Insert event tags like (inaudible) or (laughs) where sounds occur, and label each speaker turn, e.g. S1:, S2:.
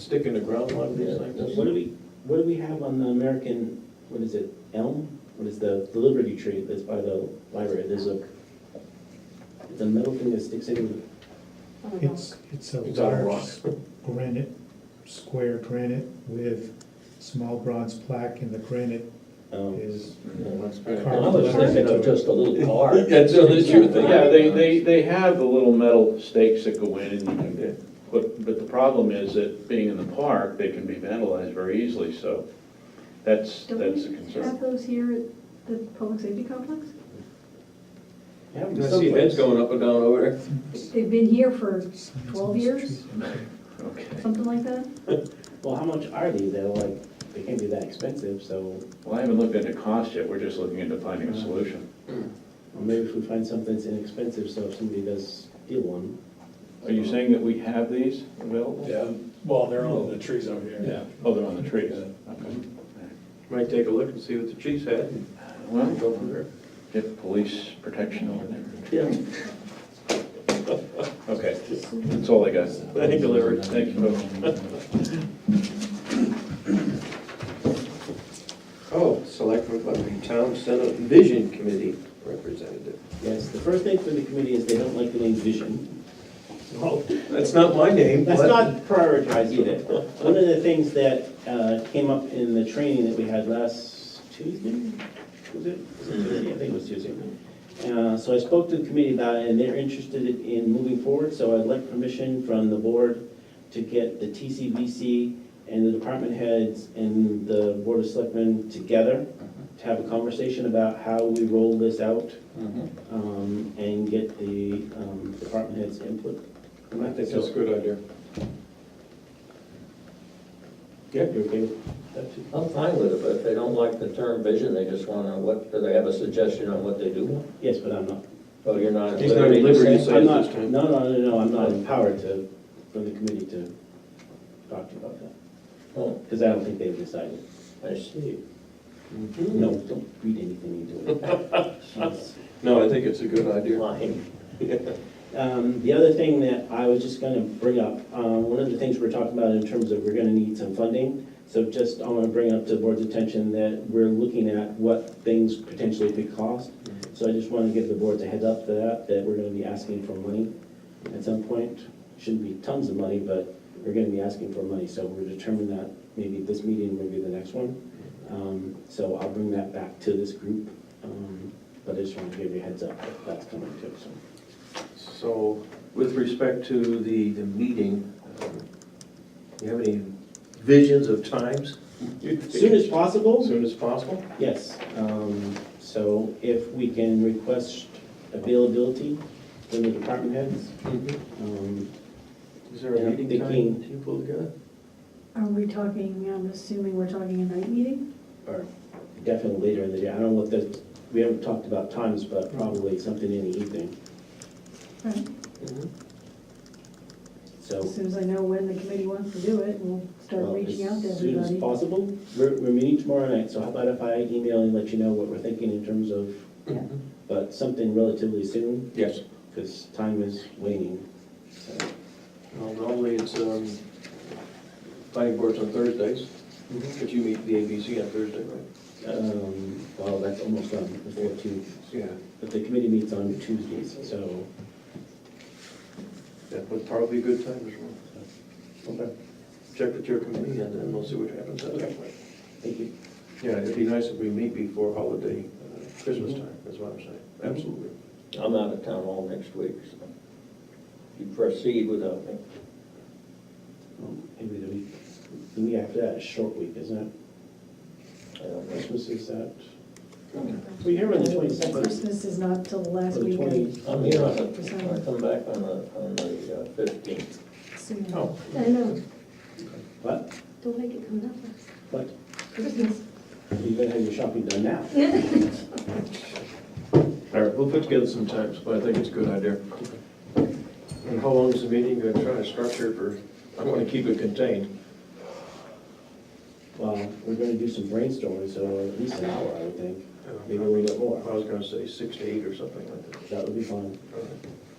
S1: stick in the ground like this, like this?
S2: What do we, what do we have on the American, what is it, elm? What is the, the Liberty tree that's by the library? There's a, it's a metal thing that sticks in,
S3: It's, it's a
S1: It's on a
S3: large granite, square granite with small bronze plaque and the granite
S2: um,
S3: is,
S2: I was thinking of just
S1: (laughs)
S2: a little car.
S1: Yeah, so that's your thing.
S4: Yeah, they, they, they have the little metal stakes that go in and you can put, but the problem is that being in the park, they can be vandalized very easily, so that's,
S5: Don't
S4: that's a
S5: we have
S4: concern.
S5: those here at the public safety complex?
S2: Yeah,
S1: I see heads going up and down over there.
S5: They've been here for twelve years,
S4: Okay.
S5: something like that?
S2: Well, how much are these? They're like, they can't be that expensive, so
S4: Well, I haven't looked into cost yet, we're just looking into finding
S1: Uh-huh.
S4: a solution.
S2: or maybe if we find something that's inexpensive, so if somebody does steal one.
S4: Are you saying that we have these available?
S6: Yeah, well, they're on the trees over here.
S4: Yeah, oh, they're on the trees. Okay.
S1: Might take a look and see what the chief's had and
S4: Well,
S1: go from there.
S4: get police protection over there.
S2: Yeah.
S4: Okay, that's all I got.
S1: Thank you, Larry.
S4: Thank you, folks.
S1: (laughs) Oh, selectmen, but the town senate vision committee representative.
S2: Yes, the first thing for the committee is they don't like the name vision.
S1: Well, that's not my name,
S2: That's
S1: but
S2: not prioritized either. One of the things that uh, came up in the training that we had last Tuesday, was it? Was it Tuesday? I think it was Tuesday. Uh, So I spoke to the committee about it, and they're interested in moving forward, so I'd like permission from the board to get the TCVC and the department heads and the board of selectmen together to have a conversation about how we roll this out
S1: Mm-hmm.
S2: um, and get the um, department heads' input.
S1: I think that's a good idea.
S2: Yeah, you're okay with that too?
S7: I'm fine with it, but if they don't like the term vision, they just wanna, what, do they have a suggestion on what they do want?
S2: Yes, but I'm not.
S7: Oh, you're not. at
S1: He's not at
S7: liberty to
S1: liberty
S7: say?
S1: So
S2: I'm
S1: it's
S2: not,
S1: this
S2: no,
S1: time.
S2: no, no, no, I'm not empowered to, for the committee to talk to you about that,
S7: Oh,
S2: because I don't think they've decided.
S7: I see.
S1: Mm-hmm.
S2: No, don't read anything into it. Jeez.
S1: No, I think it's a good idea.
S7: Fine.
S2: Um, The other thing that I was just gonna bring up, uh, one of the things we're talking about in terms of we're gonna need some funding, so just, I wanna bring up to the board's attention that we're looking at what things potentially could cost. So I just wanna give the board a heads up for that, that we're gonna be asking for money at some point. Shouldn't be tons of money, but we're gonna be asking for money, so we're determining that maybe this meeting, maybe the next one. Um, So I'll bring that back to this group, um, but I just wanna give you a heads up that that's coming too, so.
S1: So with respect to the, the meeting, um, you have any visions of times?
S2: Soon as possible,
S1: Soon as possible?
S2: yes. Um, So if we can request availability from the department heads.
S1: Mm-hmm.
S2: um,
S1: Is there a
S2: Yeah,
S1: meeting
S2: thinking-
S1: time that you pull together?
S5: Are we talking, I'm assuming we're talking a night meeting?
S2: Or definitely later in the day, I don't know what the, we haven't talked about times, but probably something in the evening.
S5: Right.
S1: Mm-hmm.
S2: So.
S5: As soon as I know when the committee wants to do it, we'll start
S2: well,
S5: reaching out to
S2: As soon as
S5: everybody.
S2: possible. We're, we're meeting tomorrow night, so how about if I email and let you know what we're thinking in terms of, but something relatively soon,
S1: Yes.
S2: because time is waning. So,
S1: Well, normally it's, um, planning boards on Thursdays, but you meet the ABC on Thursday, right?
S2: um, Well, that's almost done, the 14th.
S1: Yeah.
S2: But the committee meets on Tuesdays, so.
S1: That would probably be a good time as well. Okay. Check with your committee and then we'll see what happens at that point.
S2: Thank you.
S1: Yeah, it'd be nice if we meet before holiday, uh, Christmas time, is what I'm saying. Absolutely.
S7: I'm out of town all next week, so you proceed without me.
S2: Well, Maybe the week, the week after that is short week, isn't
S7: I don't
S2: it?
S7: know.
S2: Christmas is that, we're here on the twenty-second.
S5: Christmas is not till the last
S2: Or the
S5: week of
S2: 20
S7: I'm here on the, I come back on the, on the uh, fifteenth.
S5: soon.
S1: Oh.
S8: I know,
S2: What,
S8: don't make it come up.
S2: what,
S8: Christmas.
S2: you better have your shopping done now.
S1: All right, we'll put together some times, but I think it's a good idea. And how long is the meeting? I'm trying to structure it for, I want to keep it contained.
S2: Well, we're gonna do some brainstorming, so at least an hour, I would think,
S1: Um,
S2: maybe a little bit
S1: I
S2: more,
S1: was gonna say six to eight or something like that.
S2: that would be fun.
S1: All right.